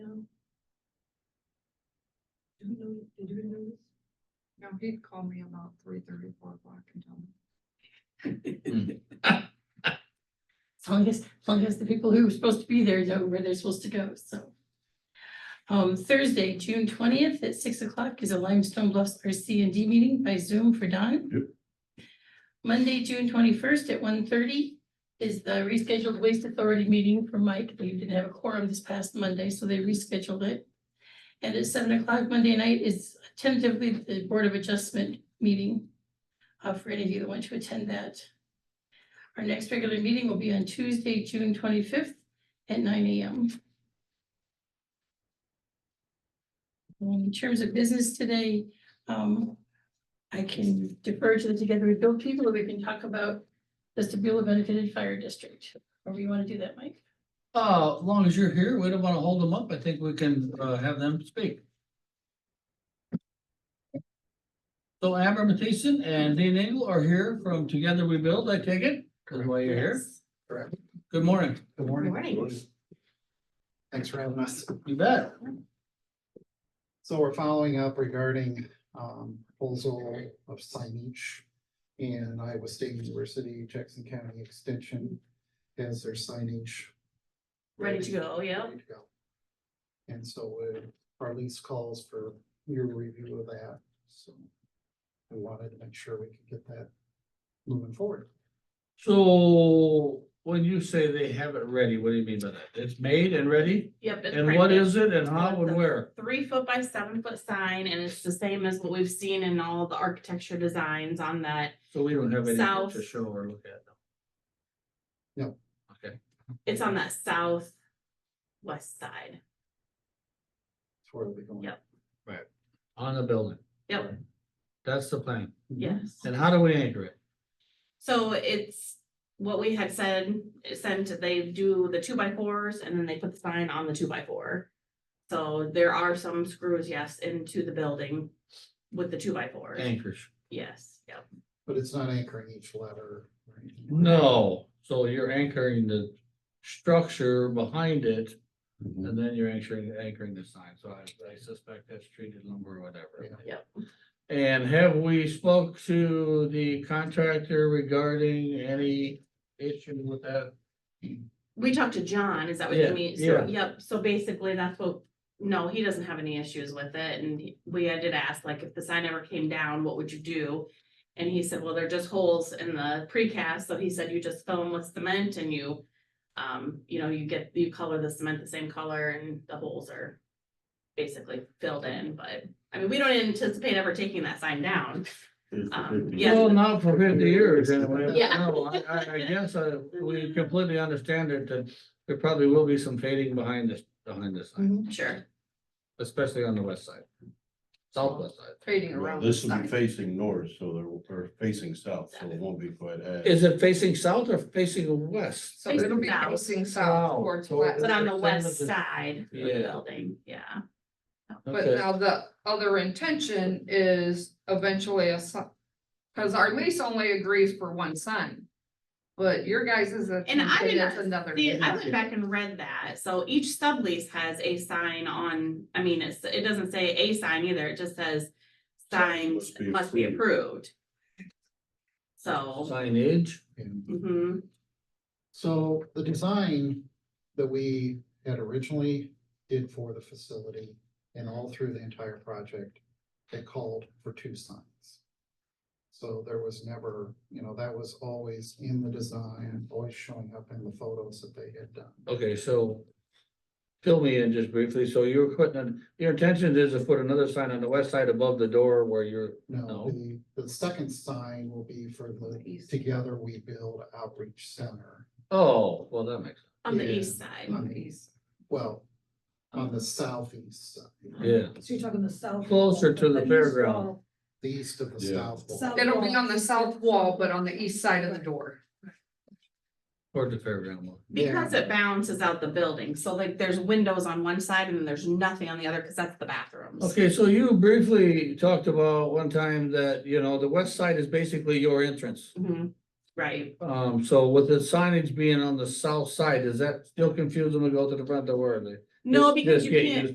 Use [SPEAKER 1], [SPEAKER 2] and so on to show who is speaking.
[SPEAKER 1] Did you know this? No, he'd call me about three thirty, four o'clock and tell me.
[SPEAKER 2] As long as, as long as the people who are supposed to be there know where they're supposed to go, so. Um, Thursday, June twentieth at six o'clock is a Limestone Bluffs RC and D meeting by Zoom for Don.
[SPEAKER 3] Yep.
[SPEAKER 2] Monday, June twenty-first at 1:30 is the rescheduled Waste Authority meeting for Mike. They didn't have a quorum this past Monday, so they rescheduled it. And at seven o'clock Monday night is tentatively the Board of Adjustment meeting. uh, for any of you that want to attend that. Our next regular meeting will be on Tuesday, June twenty-fifth at nine AM. Um, In terms of business today, um, I can defer to the Together We Build people, or we can talk about the Stabilo benefited fire district. Or you want to do that, Mike?
[SPEAKER 4] Uh, as long as you're here, we don't wanna hold them up. I think we can, uh, have them speak. So Amber Matheson and Dean Engel are here from Together We Build, I take it, that's why you're here. Good morning.
[SPEAKER 5] Good morning.
[SPEAKER 1] Good morning.
[SPEAKER 5] Thanks for having us.
[SPEAKER 4] You bet.
[SPEAKER 5] So we're following up regarding um proposal of signage. And Iowa State University, Jackson County Extension has their signage.
[SPEAKER 2] Ready to go, yeah.
[SPEAKER 5] ready to go. And so uh, our lease calls for your review of that, so. We wanted to make sure we could get that moving forward.
[SPEAKER 4] So when you say they have it ready, what do you mean by that? It's made and ready?
[SPEAKER 6] Yep. it's
[SPEAKER 4] And what
[SPEAKER 6] branded.
[SPEAKER 4] is it and how and where?
[SPEAKER 6] Three foot by seven foot sign and it's the same as what we've seen in all the architecture designs on that.
[SPEAKER 4] So we don't have anything to
[SPEAKER 6] South.
[SPEAKER 4] show or look at. now.
[SPEAKER 5] No.
[SPEAKER 4] Okay,
[SPEAKER 6] It's on that south west side.
[SPEAKER 5] That's where we're going.
[SPEAKER 6] Yep.
[SPEAKER 4] on the building.
[SPEAKER 6] Yep.
[SPEAKER 4] That's the plan.
[SPEAKER 6] Yes.
[SPEAKER 4] And how do we anchor it?
[SPEAKER 6] So it's what we had said, sent, they do the two by fours and then they put the sign on the two by four. So there are some screws, yes, into the building with the two by fours.
[SPEAKER 4] Anchors.
[SPEAKER 6] Yes, yep.
[SPEAKER 5] But it's not anchoring each letter. or anything.
[SPEAKER 4] No, so you're anchoring the structure behind it, and then you're anchoring, anchoring the sign, so I, I suspect that's treated lumber or whatever.
[SPEAKER 6] Yeah.
[SPEAKER 4] And have we spoke to the contractor regarding any issue with that?
[SPEAKER 6] We talked to John, is that what you
[SPEAKER 4] Yeah,
[SPEAKER 6] mean?
[SPEAKER 4] yeah.
[SPEAKER 6] So, yep, so basically that's what, no, he doesn't have any issues with it, and he- we, I did ask, like, if the sign ever came down, what would you do? And he said, well, they're just holes in the precast, so he said you just fill them with cement and you, um, you know, you get, you color the cement the same color and the holes are basically filled in, but, I mean, we don't anticipate ever taking that sign down. Um, yeah.
[SPEAKER 4] Well, not for fifty years anyway. but
[SPEAKER 6] Yeah.
[SPEAKER 4] No, I, I, I guess I, we completely understand it, that there probably will be some fading behind this, behind this sign,
[SPEAKER 6] Sure,
[SPEAKER 4] especially on the west side. Southwest side.
[SPEAKER 1] Trading
[SPEAKER 7] Well,
[SPEAKER 1] around.
[SPEAKER 7] This will
[SPEAKER 1] sign.
[SPEAKER 7] be facing north, so there, will- or facing south, so it won't be quite as.
[SPEAKER 4] Is it facing south or facing west?
[SPEAKER 1] So it'll be
[SPEAKER 6] Facing south.
[SPEAKER 1] facing south
[SPEAKER 4] South.
[SPEAKER 1] towards
[SPEAKER 4] So
[SPEAKER 1] west,
[SPEAKER 6] but on the
[SPEAKER 4] Percent of
[SPEAKER 6] west
[SPEAKER 4] the-
[SPEAKER 6] side of the
[SPEAKER 4] Yeah.
[SPEAKER 6] building, yeah.
[SPEAKER 1] but now the other intention is eventually a sign. Cause our lease only agrees for one sign. But your guys is a.
[SPEAKER 6] And I did not
[SPEAKER 1] Another.
[SPEAKER 6] See, I
[SPEAKER 1] thing.
[SPEAKER 6] went back and read that, so each sublease has a sign on, I mean, it's, it doesn't say a sign either, it just says. Signs
[SPEAKER 7] Must be
[SPEAKER 6] must be
[SPEAKER 7] approved.
[SPEAKER 6] approved. So,
[SPEAKER 4] Signage,
[SPEAKER 5] And
[SPEAKER 6] mhm,
[SPEAKER 5] So the design that we had originally did for the facility and all through the entire project, they called for two signs. So there was never, you know, that was always in the design, always showing up in the photos that they had done.
[SPEAKER 4] okay, so. Fill me in just briefly, so you're putting, an- your intention is to put another sign on the west side above the door where you're,
[SPEAKER 5] No,
[SPEAKER 4] No.
[SPEAKER 5] the, the second sign will be for the
[SPEAKER 1] East.
[SPEAKER 5] Together We Build Outreach Center.
[SPEAKER 4] oh, well, that makes,
[SPEAKER 6] on the
[SPEAKER 5] Yeah.
[SPEAKER 6] east side,
[SPEAKER 1] On the east.
[SPEAKER 5] Well, on the southeast side,
[SPEAKER 4] yeah,
[SPEAKER 8] So you're talking the south.
[SPEAKER 4] Closer to the
[SPEAKER 8] east
[SPEAKER 4] fairground.
[SPEAKER 8] wall,
[SPEAKER 5] the east of the
[SPEAKER 7] Yeah.
[SPEAKER 5] south wall.
[SPEAKER 8] south
[SPEAKER 1] It'll be
[SPEAKER 8] wall.
[SPEAKER 1] on the south wall, but on the east side of the door.
[SPEAKER 4] toward the fairground. one.
[SPEAKER 6] because it balances out the building, so like, there's windows on one side and then there's nothing on the other, cause that's the bathrooms.
[SPEAKER 4] Okay, so you briefly talked about one time that, you know, the west side is basically your entrance.
[SPEAKER 6] Mhm, right,
[SPEAKER 4] Um, so with the signage being on the south side, does that still confuse them to go to the front door? or they-
[SPEAKER 6] no,
[SPEAKER 4] Just-
[SPEAKER 6] because
[SPEAKER 4] just
[SPEAKER 6] you
[SPEAKER 4] get
[SPEAKER 6] can't,
[SPEAKER 4] used